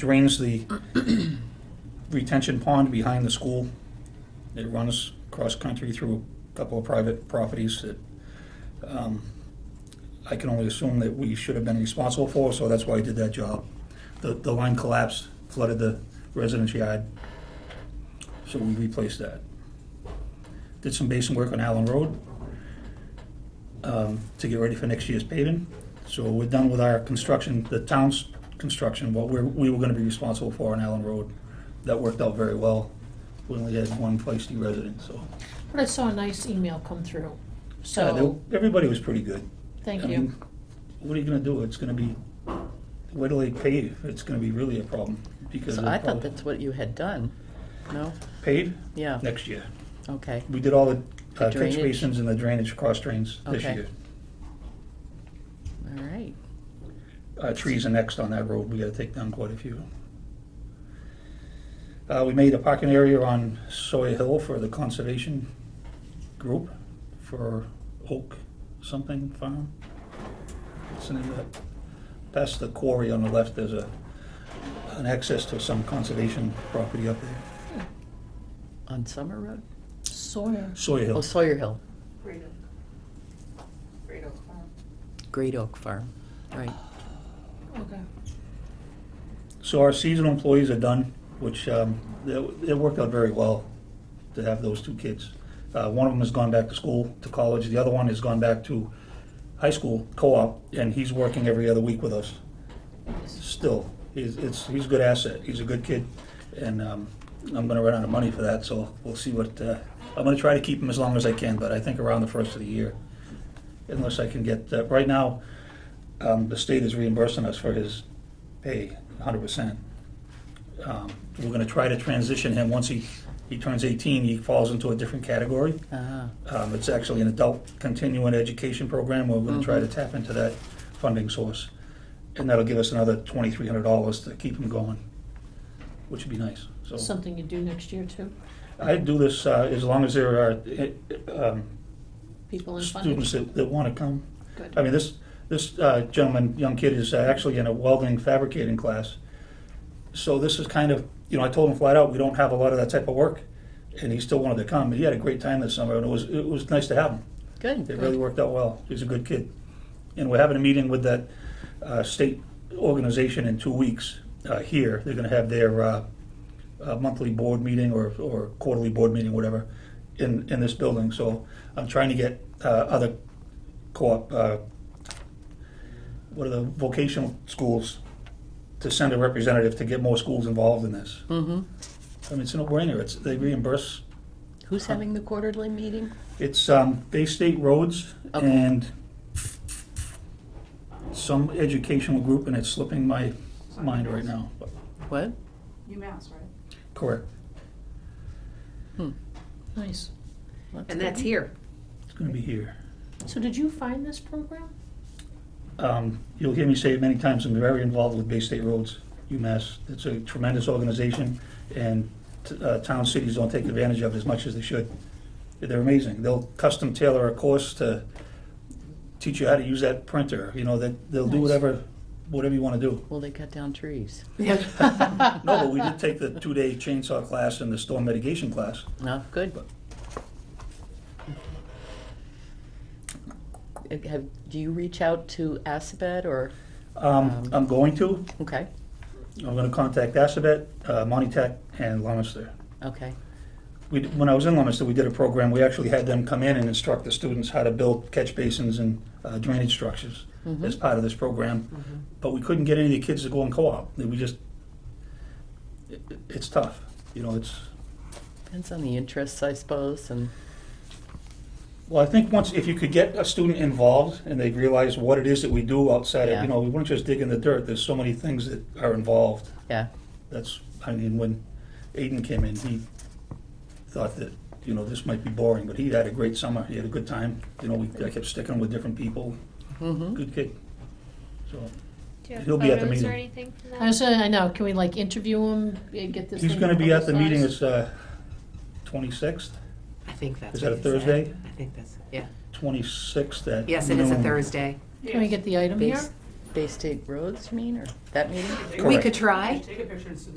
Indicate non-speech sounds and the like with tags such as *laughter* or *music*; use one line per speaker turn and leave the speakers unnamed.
drains the retention pond behind the school. It runs cross-country through a couple of private properties that um, I can only assume that we should have been responsible for, so that's why I did that job. The, the line collapsed, flooded the residence yard, so we replaced that. Did some basin work on Allen Road um, to get ready for next year's paving. So we're done with our construction, the town's construction, what we're, we were gonna be responsible for on Allen Road. That worked out very well. We only had one feisty resident, so.
But I saw a nice email come through,
Yeah,
so,
they- Everybody was pretty good.
thank
I mean,
you.
What are you gonna do? It's gonna be, where do they pave? It's gonna be really a problem because.
So
of
I thought
how-
that's what you had done. No?
Pave
Yeah,
next year.
okay.
We did all the uh,
The
catch
drainage.
basins and the drainage cross drains this
Okay.
year.
All right.
Uh, trees are next on that road, we gotta take down quite a few. Uh, we made a parking area on Sawyer Hill for the conservation group for Oak something farm. What's the name of that? Past the quarry on the left, there's a, an access to some conservation property up there,
On Summer Road?
Sawyer.
Sawyer
Oh,
Hill.
Sawyer Hill,
Great Oak. Great Oak Farm.
Great Oak Farm. Right.
Okay.
So our seasonal employees are done, which, um, it, it worked out very well to have those two kids. Uh, one of them has gone back to school, to college, the other one has gone back to high school, co-op, and he's working every other week with us. Still, he's, it's, he's a good asset, he's a good kid, and, um, I'm gonna run out of money for that, so we'll see what, uh, I'm gonna try to keep him as long as I can, but I think around the first of the year. Unless I can get, uh, right now, um, the state is reimbursing us for his pay, hundred percent. Um, We're gonna try to transition him, once he, he turns eighteen, he falls into a different category.
Ah,
Um, It's actually an adult continuing education program, we're gonna
Mm-hmm.
try to tap into that funding source. And that'll give us another twenty-three hundred dollars to keep him going, which would be nice, so.
Something you do next year too,
I do this uh, as long as there are uh, um,
people in funding,
students that, that wanna come. I
good.
mean, this, this uh, gentleman, young kid, is uh, actually in a welding fabricating class. So this is kind of, you know, I told him flat out, we don't have a lot of that type of work, and he still wanted to come. He had a great time this summer, and it was, it was nice to have him.
good.
It really worked out well. He's a good kid. And we're having a meeting with that uh, state organization in two weeks uh, here. They're gonna have their uh, uh, monthly board meeting or or quarterly board meeting, whatever, in, in this building. So I'm trying to get uh, other co-op, uh, what are the vocational schools, to send a representative to get more schools involved in this.
Mm-hmm.
I mean, it's a no-brainer. It's, they reimburse
Who's having the quarterly meeting?
it's um, Bay State Roads
Okay.
and some educational group, and it's slipping my mind right now. but-
What?
UMass, right?
Correct.
Hmm.
Nice.
And that's here.
It's going to be here.
So did you find this program?
Um, You'll hear me say it many times, I'm very involved with Bay State Roads, UMass. It's a tremendous organization, and t- uh, town cities don't take advantage of it as much as they should. They're amazing. They'll custom tailor a course to teach you how to use that printer, you know, that, they'll do
Nice.
whatever, whatever you want to do.
Well, they cut down trees.
*laughs*
No, but we did take the two-day chainsaw class and the storm mitigation class.
No, good. Uh, Have, do you reach out to Assabet or,
Um, I'm going to,
okay,
I'm gonna contact Assabet, uh, Monty Tech, and Lumister.
okay,
We, d- when I was in Lumister, we did a program, we actually had them come in and instruct the students how to build catch basins and uh, drainage structures as part of this program. But we couldn't get any of the kids to go in co-op, we just, it, it- it's tough, you know, it's,
depends on the interests, I suppose, and,
Well, I think once, if you could get a student involved and they realize what it is that we do outside of,
Yeah.
you know, we weren't just digging the dirt, there's so many things that are involved.
yeah,
That's, I mean, when Aiden came in, he thought that, you know, this might be boring, but he had a great summer, he had a good time. You know, we, I kept sticking with different people,
mm-hmm,
good kid. So,
Do you have
He'll be at the
photos
meeting.
or anything from that?
I was, I know, can we like interview him, eh, get this thing?
he's gonna be at the meeting,
publicized?
it's, uh, twenty-sixth,
I think that's.
Is that
what
a
it said.
Thursday?
I think that's, yeah.
twenty-sixth at
Yes, it is a
noon.
Thursday.
Can we get the item here?
Base-
Bay State Roads, you mean, or that meeting?
We
Correct.
could try.
Take a picture and submit